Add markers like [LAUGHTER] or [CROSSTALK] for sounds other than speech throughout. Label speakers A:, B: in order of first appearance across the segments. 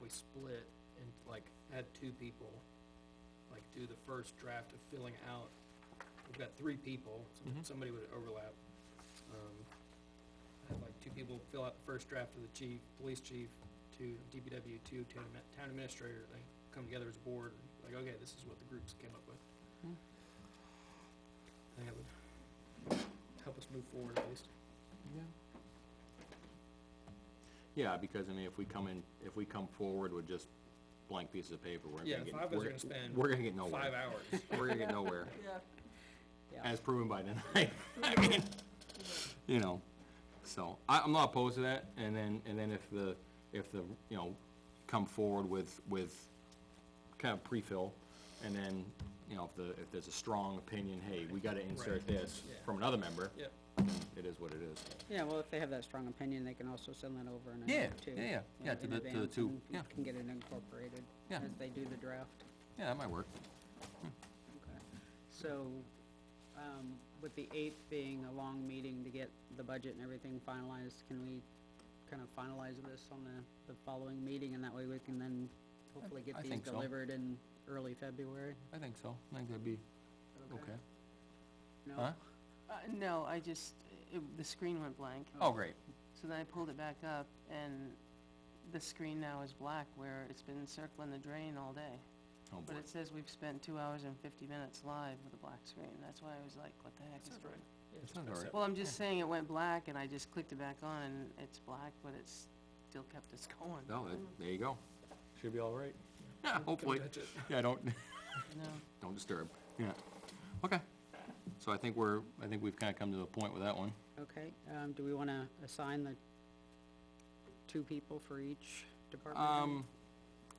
A: we split and like had two people, like do the first draft of filling out, we've got three people, so
B: Mhm.
A: somebody would overlap. Um, I had like two people fill out the first draft of the chief, police chief, two DPW, two town admin- town administrator, they come together as a board, like, okay, this is what the groups came up with.
C: Hmm.
A: I think that would help us move forward at least.
B: Yeah. Yeah, because I mean, if we come in, if we come forward with just blank pieces of paper, we're
A: Yeah,
B: gonna get,
A: five of us
B: we're,
A: are gonna spend
B: we're gonna
A: Five
B: get nowhere.
A: hours.
B: [LAUGHS] We're gonna get nowhere,
C: [LAUGHS] Yeah. Yeah,
B: as proven by tonight. [LAUGHS] I mean, you know, so, I, I'm not opposed to that, and then, and then if the, if the, you know, come forward with, with kind of pre-fill, and then, you know, if the, if there's a strong opinion, hey, we gotta insert
A: Right.
B: this
A: Yeah.
B: from another member,
A: Yep,
B: it is what it is.
C: yeah, well, if they have that strong opinion, they can also send that over in a
B: Yeah,
C: note too.
B: yeah, yeah,
C: in-
B: yeah, to
C: in
B: the- to the
C: advance,
B: two,
C: and we
B: yeah.
C: Can get it incorporated
B: Yeah.
C: as they do the draft.
B: Yeah, that might work.
C: Okay. So, um, with the eighth being a long meeting to get the budget and everything finalized, can we kind of finalize this on the, the following meeting? And that way we can then hopefully
B: I
C: get these
B: think so.
C: delivered in early February?
B: I think so. I think that'd be okay.
C: No?
B: Huh?
D: Uh, no, I just, it, the screen went blank,
B: Oh, great.
D: so then I pulled it back up, and the screen now is black where it's been circling the drain all day.
B: Oh, boy.
D: But it says we've spent two hours and fifty minutes live with a black screen, that's why I was like, what the heck is going on?
B: That sounds all right.
D: Well, I'm just saying it went black, and I just clicked it back on, and it's black, but it's still kept us [LAUGHS] going.
B: No, that- there you go. Should be all right. Yeah, hopefully.
A: touch it.
B: Yeah, don't, [LAUGHS]
D: No,
B: don't disturb. Yeah. Okay. So I think we're, I think we've kinda come to the point with that one.
C: Okay, um, do we wanna assign the two people for each department? head?
B: Um,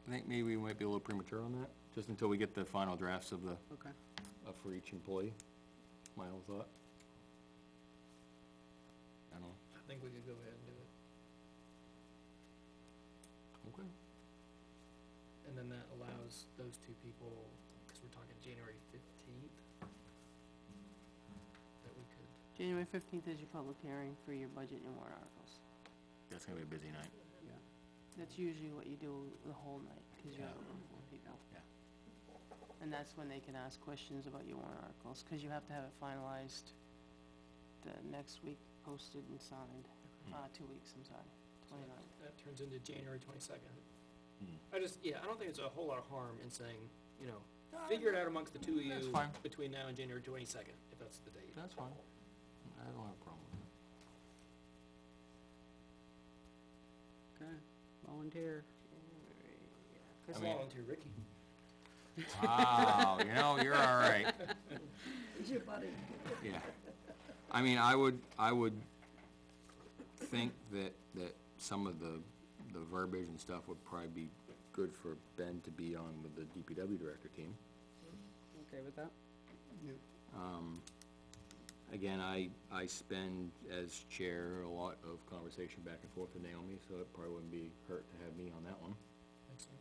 B: I think maybe we might be a little premature on that, just until we get the final drafts of the,
C: Okay,
B: of for each employee. My own thought. I don't know.
A: I think we could go ahead and do it,
B: Okay.
A: and then that allows those two people, cause we're talking January fifteenth. That we could,
D: January fifteenth is your public hearing for your budget and warrant articles.
B: That's gonna be a busy night.
C: yeah.
D: That's usually what you do the whole night, because you
B: Yeah.
D: have more people.
B: Yeah.
D: And that's when they can ask questions about your warrant articles, because you have to have it finalized the next week, posted and signed,
B: Mm.
D: uh, two weeks, I'm sorry,
A: so
D: twenty-nine.
A: that, that turns into January twenty-second.
B: Hmm.
A: I just, yeah, I don't think it's a whole lot of harm in saying, you know, figure it out amongst the two of
B: that's
A: you
B: fine.
A: between now and January twenty-second, if that's the date.
B: That's fine. I don't have a problem with that.
C: Okay, volunteer.
B: I
A: Let's
B: mean-
A: volunteer Ricky.
B: Wow, you know, you're all right. Yeah. I mean, I would, I would think that, that some of the, the verbiage and stuff would probably be good for Ben to be on with the DPW director team.
C: Okay with that?
B: Um, again, I, I spend as chair a lot of conversation back and forth with Naomi, so it probably wouldn't be hurt to have me on that one.
A: Makes sense.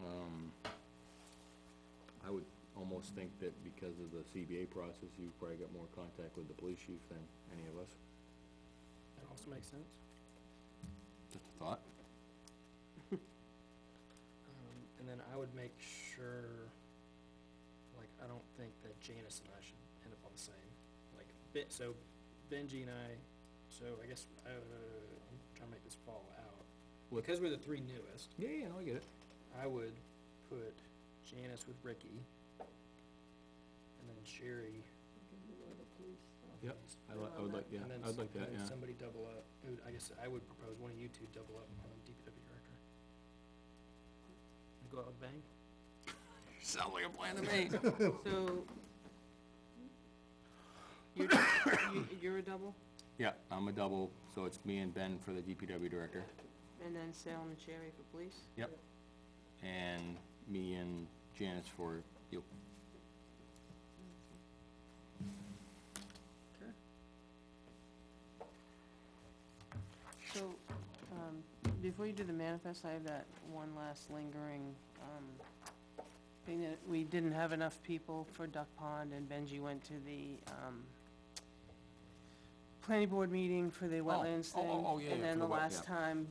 B: Um, I would almost think that because of the CBA process, you've probably got more contact with the police chief than any of us.
A: That also makes sense.
B: Just a thought.
A: Um, and then I would make sure, like, I don't think that Janice and I should end up on the same, like, bit, so Benji and I, so I guess, uh, I'm trying to make this fall out.
B: What-
A: Because we're the three newest,
B: Yeah, yeah, no, I get it.
A: I would put Janice with Ricky, and then Sherry.
B: Yep, I li- I would like, yeah,
A: and then
B: I'd like
A: s-
B: that,
A: and then
B: yeah.
A: Somebody double up, who, I guess I would propose one of you two double up on DPW director. Go out with a bang?
B: Sounds like a plan to me.
D: [LAUGHS] So, you're, you- you're a double,
B: Yeah, I'm a double, so it's me and Ben for the DPW director.
D: and then Sal and Sherry for police?
B: Yep. And me and Janice for you.
C: Okay.
D: So, um, before you do the manifest, I have that one last lingering, um, thing that we didn't have enough people for Duck Pond and Benji went to the, um, planning board meeting for the wetlands
B: oh,
D: thing.
B: oh, oh, yeah, yeah,
D: And
B: for
D: then
B: the
D: the
B: wet-
D: last
B: yeah.
D: time,